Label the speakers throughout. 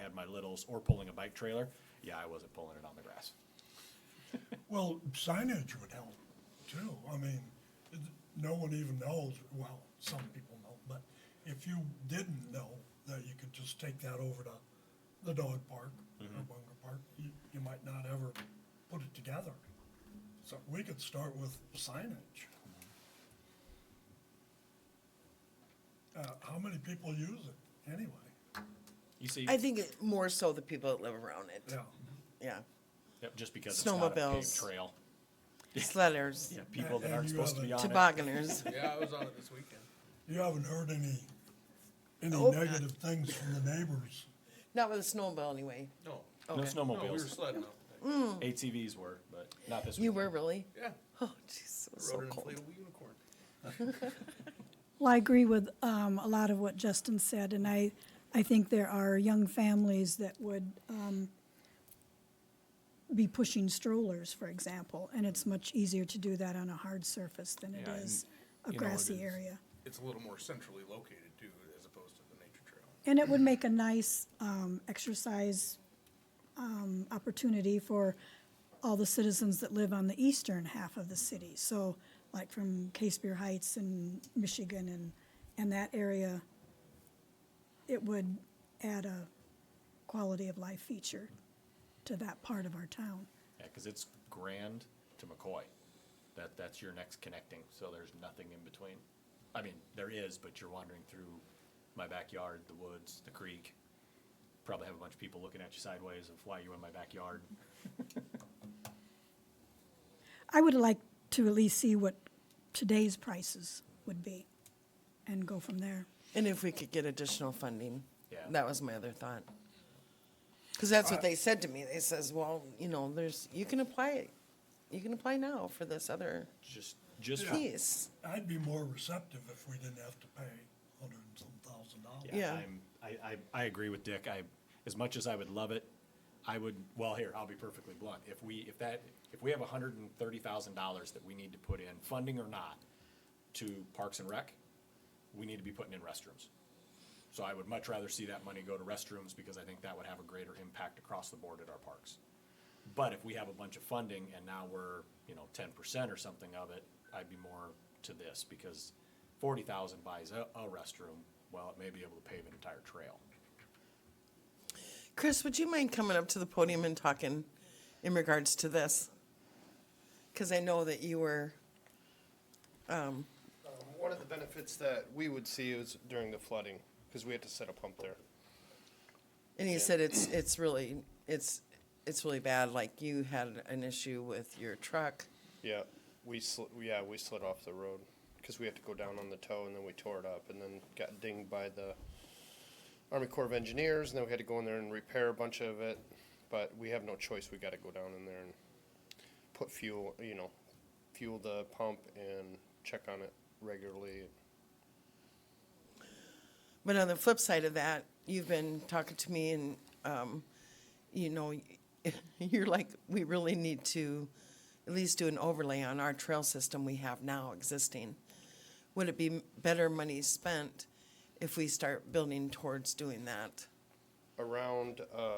Speaker 1: had my littles or pulling a bike trailer, yeah, I wasn't pulling it on the grass.
Speaker 2: Well, signage would help too. I mean, it- no one even knows, well, some people know, but if you didn't know that you could just take that over to the dog park or Bunker Park, you, you might not ever put it together. So we could start with signage. Uh, how many people use it anyway?
Speaker 1: You see,
Speaker 3: I think it- more so the people that live around it.
Speaker 2: Yeah,
Speaker 3: Yeah.
Speaker 1: yep, just because it's not a paved
Speaker 3: Snowmobiles.
Speaker 1: trail,
Speaker 3: Sledders,
Speaker 1: yeah, people that
Speaker 2: And
Speaker 1: aren't
Speaker 2: you
Speaker 1: supposed to
Speaker 2: have
Speaker 1: be
Speaker 2: a-
Speaker 1: on it.
Speaker 3: tobogganers.
Speaker 4: Yeah, I was on it this weekend.
Speaker 2: you haven't heard any, any
Speaker 3: Nope.
Speaker 2: negative things from the neighbors.
Speaker 3: Not with a snowball, anyway.
Speaker 4: No.
Speaker 1: No
Speaker 3: Okay.
Speaker 4: No, we
Speaker 2: Oh,
Speaker 4: were
Speaker 1: snowmobiles,
Speaker 4: sledding up.
Speaker 3: Mm.
Speaker 1: ATVs were, but not this
Speaker 3: You
Speaker 1: weekend.
Speaker 3: were really?
Speaker 4: Yeah.
Speaker 3: Oh, jeez, it was so
Speaker 4: Rode an
Speaker 3: cold.
Speaker 4: inflatable unicorn.
Speaker 5: Well, I agree with um, a lot of what Justin said, and I, I think there are young families that would um, be pushing strollers, for example, and it's much easier to do that on a hard surface than it
Speaker 4: Yeah, and,
Speaker 5: is
Speaker 4: you
Speaker 5: a
Speaker 4: know, it
Speaker 5: grassy
Speaker 4: is-
Speaker 5: area.
Speaker 4: It's a little more centrally located too, as opposed to the nature trail.
Speaker 5: And it would make a nice um, exercise um, opportunity for all the citizens that live on the eastern half of the city. So, like from Casebeer Heights and Michigan and, and that area, it would add a quality of life feature to that part of our town.
Speaker 1: Yeah, because it's Grand to McCoy. That, that's your next connecting, so there's nothing in between. I mean, there is, but you're wandering through my backyard, the woods, the creek. Probably have a bunch of people looking at you sideways of why you in my backyard.
Speaker 5: I would like to at least see what today's prices would be and go from there.
Speaker 3: And if we could get additional funding,
Speaker 1: Yeah. Uh,
Speaker 3: that was my other thought. Because that's what they said to me. They says, well, you know, there's, you can apply, you can apply now for this other
Speaker 1: Just, just, for-
Speaker 3: piece.
Speaker 2: I'd be more receptive if we didn't have to pay a hundred and some thousand dollars.
Speaker 3: Yeah.
Speaker 1: yeah, I'm, I, I, I agree with Dick. I, as much as I would love it, I would, well, here, I'll be perfectly blunt. If we, if that, if we have hundred and thirty thousand dollars that we need to put in, funding or not, to Parks and Rec, we need to be putting in restrooms. So I would much rather see that money go to restrooms because I think that would have a greater impact across the board at our parks. But if we have a bunch of funding and now we're, you know, ten percent or something of it, I'd be more to this because forty thousand buys a, a restroom, well, it may be able to pave an entire trail.
Speaker 3: Chris, would you mind coming up to the podium and talking in regards to this? Because I know that you were,
Speaker 6: Um, One of the benefits that we would see is during the flooding, because we had to set a pump there.
Speaker 3: and you said it's, it's really, it's, it's really bad, like you had an issue with your truck.
Speaker 6: Yeah, we slid, yeah, we slid off the road, because we had to go down on the toe, and then we tore it up, and then got dinged by the Army Corps of Engineers, and then we had to go in there and repair a bunch of it, but we have no choice, we gotta go down in there and put fuel, you know, fuel the pump and check on it regularly.
Speaker 3: But on the flip side of that, you've been talking to me and, um, you know, you're like, we really need to at least do an overlay on our trail system we have now existing. Would it be better money spent if we start building towards doing that?
Speaker 6: Around, uh,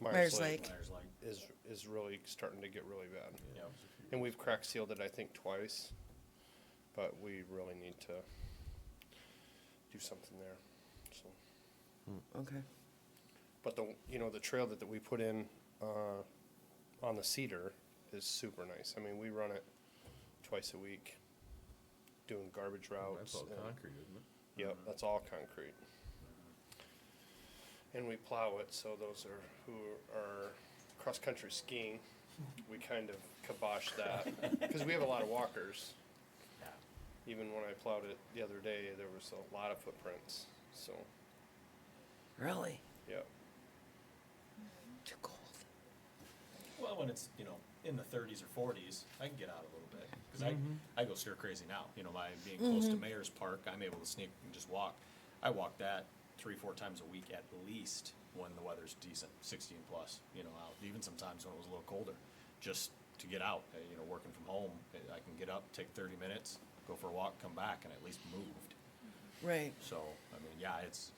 Speaker 3: Myers Lake.
Speaker 1: There's like,
Speaker 6: Is, is really starting to get really bad.
Speaker 1: you know,
Speaker 6: And we've crack sealed it, I think, twice, but we really need to do something there. So,
Speaker 3: Okay.
Speaker 6: but the you know the trail that, that we put in uh, on the cedar is super nice. I mean, we run it twice a week, doing garbage routes. and-
Speaker 4: isn't it?
Speaker 6: Yep, that's all concrete. And we plow it, so those are who are cross-country skiing, we kind of kibosh that, because we have a lot of walkers. Even when I plowed it the other day, there was a lot of footprints, so,
Speaker 3: Really?
Speaker 6: yep.
Speaker 3: Too cold.
Speaker 1: Well, when it's, you know, in the thirties or forties, I can get out a little bit, cause I, I go stir crazy now, you know, by being close to Mayor's Park, I'm able to sneak and just walk. I walk that three, four times a week at least when the weather's decent, sixteen plus, you know, out, even sometimes when it was a little colder, just to get out, uh, you know, working from home, eh, I- I can get up, take thirty minutes, go for a walk, come back, and at least moved.
Speaker 3: Right.
Speaker 1: So, I mean, yeah, it's,